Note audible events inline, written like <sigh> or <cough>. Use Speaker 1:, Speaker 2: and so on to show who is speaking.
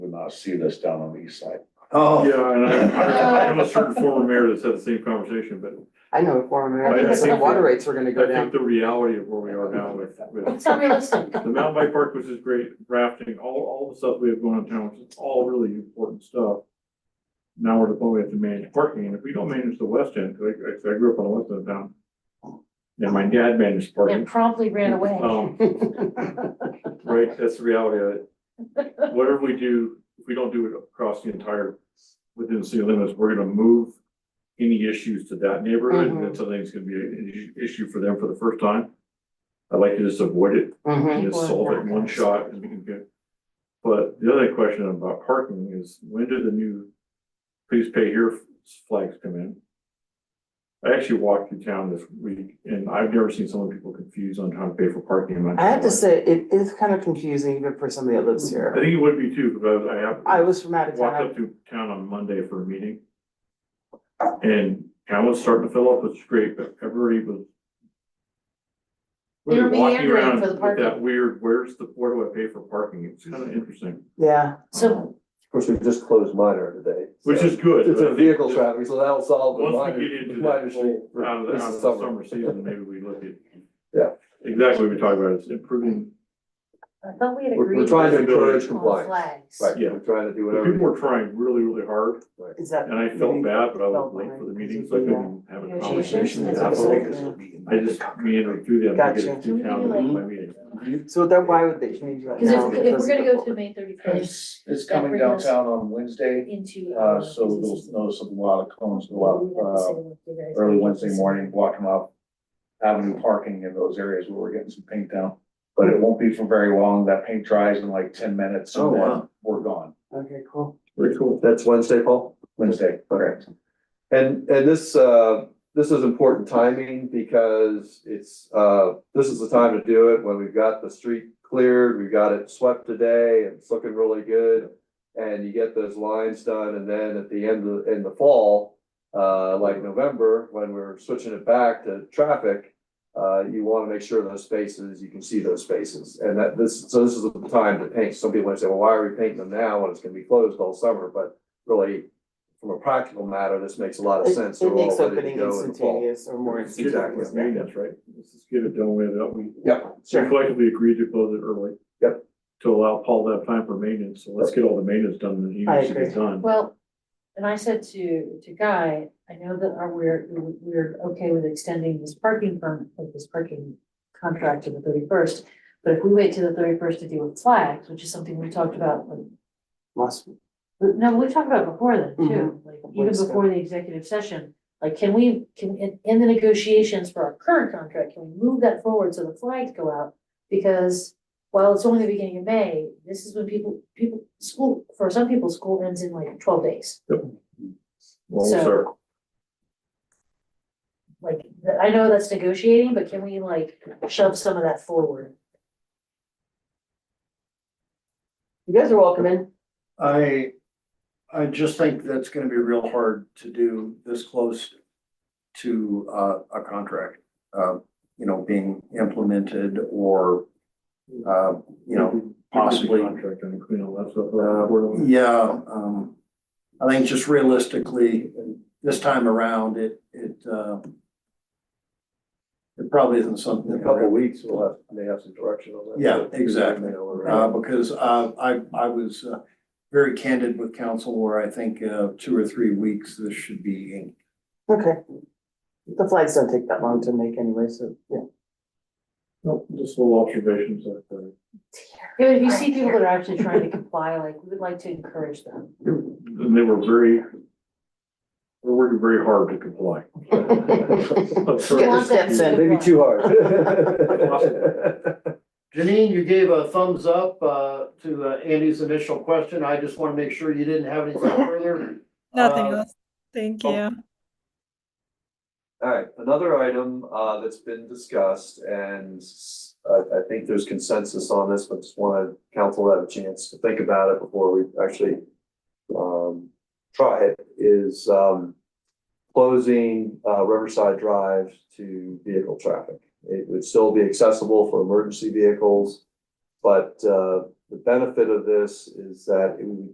Speaker 1: to see this down on the east side.
Speaker 2: Oh,
Speaker 3: Yeah, and I, I have a certain former mayor that's had the same conversation, but
Speaker 4: I know former
Speaker 3: Right, I
Speaker 4: Americans, the
Speaker 3: think-
Speaker 4: water rates are gonna go
Speaker 3: I
Speaker 4: down.
Speaker 3: think the reality of where we are now with, with
Speaker 1: <laughs>
Speaker 5: It's unrealistic.
Speaker 3: the mountain bike park, which is great, rafting, all, all the stuff we have going on in town, which is all really important stuff. Now we're at the point we have to manage parking, and if we don't manage the west end, 'cause I, 'cause I grew up on the west end of town. And my dad managed
Speaker 5: It
Speaker 3: parking,
Speaker 5: promptly ran away.
Speaker 1: Oh.
Speaker 5: <laughs>
Speaker 3: um, right, that's the reality of it. Whatever we do, if we don't do it across the entire, within the city limits, we're gonna move any issues to that neighborhood,
Speaker 5: Mm-hmm.
Speaker 3: and that's something that's gonna be an issue- issue for them for the first time. I'd like to just avoid it
Speaker 4: Mhm.
Speaker 3: and just solve it in one shot and we can get. But the other question about parking is when do the new please pay here flags come in? I actually walked through town this week and I've never seen so many people confused on how to pay for parking. in my
Speaker 4: I have to
Speaker 3: town.
Speaker 4: say, it is kind of confusing even for somebody that lives
Speaker 3: I
Speaker 4: here.
Speaker 3: think it would be too, because I have.
Speaker 4: I was from out of
Speaker 3: Walked up
Speaker 4: town.
Speaker 3: to town on Monday for a meeting. And town was starting to fill up, which is great, but everybody was.
Speaker 5: They were
Speaker 3: walking
Speaker 5: meandering
Speaker 3: around
Speaker 5: for the
Speaker 3: with
Speaker 5: parking.
Speaker 3: That weird, where's the, where do I pay for parking? It's kind of interesting.
Speaker 4: Yeah,
Speaker 5: So,
Speaker 2: of course, we just closed minor today. so-
Speaker 3: Which is good.
Speaker 2: It's
Speaker 3: but
Speaker 2: a
Speaker 3: I think
Speaker 2: vehicle
Speaker 3: just
Speaker 2: traffic, so that'll solve the
Speaker 3: Once
Speaker 2: minor,
Speaker 3: we get into
Speaker 2: minor
Speaker 3: that
Speaker 2: thing
Speaker 3: whole,
Speaker 2: for
Speaker 3: out of the,
Speaker 2: this
Speaker 3: out of the
Speaker 2: summer. <laughs>
Speaker 3: summer season, maybe we look at.
Speaker 2: Yeah.
Speaker 3: Exactly, what we talked about, it's improving,
Speaker 5: I thought we had
Speaker 2: We're-
Speaker 5: agreed.
Speaker 2: We're trying to encourage
Speaker 3: Visibility.
Speaker 5: on
Speaker 2: compliance.
Speaker 5: Flags.
Speaker 2: Right,
Speaker 3: Yeah.
Speaker 2: we're trying to do
Speaker 3: people
Speaker 2: whatever.
Speaker 3: were trying really, really hard,
Speaker 4: is that?
Speaker 3: and I felt
Speaker 4: maybe
Speaker 3: bad, but I was
Speaker 4: felt
Speaker 3: late for the
Speaker 4: like-
Speaker 3: meeting, so I couldn't have a conversation. with
Speaker 5: Negotiations, that's
Speaker 3: that
Speaker 5: what
Speaker 3: folks.
Speaker 5: I'm saying.
Speaker 3: I just meandered through them. to get
Speaker 4: Gotcha.
Speaker 3: through town to my meeting.
Speaker 4: So then why would they change that
Speaker 5: Cause if,
Speaker 4: now?
Speaker 5: if we're gonna go to May thirty first
Speaker 1: It's, it's coming
Speaker 5: That brings us-
Speaker 1: downtown on Wednesday,
Speaker 5: into.
Speaker 1: uh, so you'll notice a lot of cones go up, uh, early Wednesday morning, blocking off avenue parking in those areas where we're getting some paint down. But it won't be for very long. That paint dries in like ten minutes
Speaker 2: Oh,
Speaker 1: and then
Speaker 2: wow.
Speaker 1: we're gone
Speaker 4: Okay, cool.
Speaker 3: Very cool.
Speaker 2: That's Wednesday, Paul?
Speaker 1: Wednesday.
Speaker 2: Correct. And, and this, uh, this is important timing because it's, uh, this is the time to do it when we've got the street cleared, we've got it swept today, and it's looking really good. And you get those lines done, and then at the end of, in the fall, uh, like November, when we're switching it back to traffic, uh, you wanna make sure those spaces, you can see those spaces, and that this, so this is the time to paint. Some people might say, well, why are we painting them now when it's gonna be closed all summer, but really, from a practical matter, this makes a lot of
Speaker 4: It
Speaker 2: sense. so
Speaker 4: it
Speaker 2: we're all
Speaker 4: makes
Speaker 2: ready to
Speaker 4: opening
Speaker 2: go in the fall.
Speaker 4: instantaneous or more
Speaker 3: Let's get it, let's
Speaker 4: instantaneous.
Speaker 3: make that, right? Let's just get it done with it. We
Speaker 2: Yep,
Speaker 3: we collectively agreed to close it early.
Speaker 2: Yep.
Speaker 3: To allow Paul that time for maintenance, so let's get all the maintenance done that he
Speaker 4: I
Speaker 3: needs to get
Speaker 4: agree.
Speaker 3: done.
Speaker 5: Well, and I said to, to Guy, I know that our, we're, we're okay with extending this parking permit, like this parking contract to the thirty-first. But if we wait till the thirty-first to deal with flags, which is something we talked about, like,
Speaker 4: Must-
Speaker 5: no, we talked about before then too,
Speaker 4: Mhm.
Speaker 5: like even before the executive session. Like, can we, can, in, in the negotiations for our current contract, can we move that forward so the flags go out? Because while it's only the beginning of May, this is when people, people, school, for some people, school ends in like twelve days.
Speaker 3: Well,
Speaker 5: so-
Speaker 3: sir,
Speaker 5: like, th- I know that's negotiating, but can we like shove some of that forward?
Speaker 4: You guys are welcome in.
Speaker 6: I, I just think that's gonna be real hard to do this close to uh, a contract, uh, you know, being implemented or, uh, you know, possibly.
Speaker 3: Contract and clean all that stuff. up
Speaker 6: Uh,
Speaker 3: before the-
Speaker 6: Yeah, um, I think just realistically, this time around, it, it, uh, it probably isn't something
Speaker 2: in a
Speaker 6: that.
Speaker 2: couple of weeks, we'll have, may have some direction on that.
Speaker 6: Yeah, exactly.
Speaker 2: You know, we're-
Speaker 6: Uh, because, uh, I, I was, uh, very candid with council where I think, uh, two or three weeks, this should be inked.
Speaker 4: Okay. The flags don't take that long to make anyway, so, yeah.
Speaker 3: No, just little observations that, uh,
Speaker 5: Yeah, but if you see people that are actually trying to comply, like, we would like to encourage them.
Speaker 3: and they were very, we're working very hard to
Speaker 4: <laughs>
Speaker 3: comply. <laughs>
Speaker 5: <laughs>
Speaker 4: Get the steps in.
Speaker 2: Maybe too
Speaker 6: <laughs>
Speaker 2: hard.
Speaker 6: Janine, you gave a thumbs up, uh, to uh, Andy's initial question. I just want to make sure you didn't have anything further.
Speaker 7: Nothing
Speaker 6: Uh,
Speaker 7: else. Thank
Speaker 6: oh.
Speaker 7: you.
Speaker 2: All right, another item uh that's been discussed and I I think there's consensus on this, but just wanna council to have a chance to think about it before we actually um try it is um closing uh Riverside Drive to vehicle traffic. It would still be accessible for emergency vehicles, but uh the benefit of this is that it would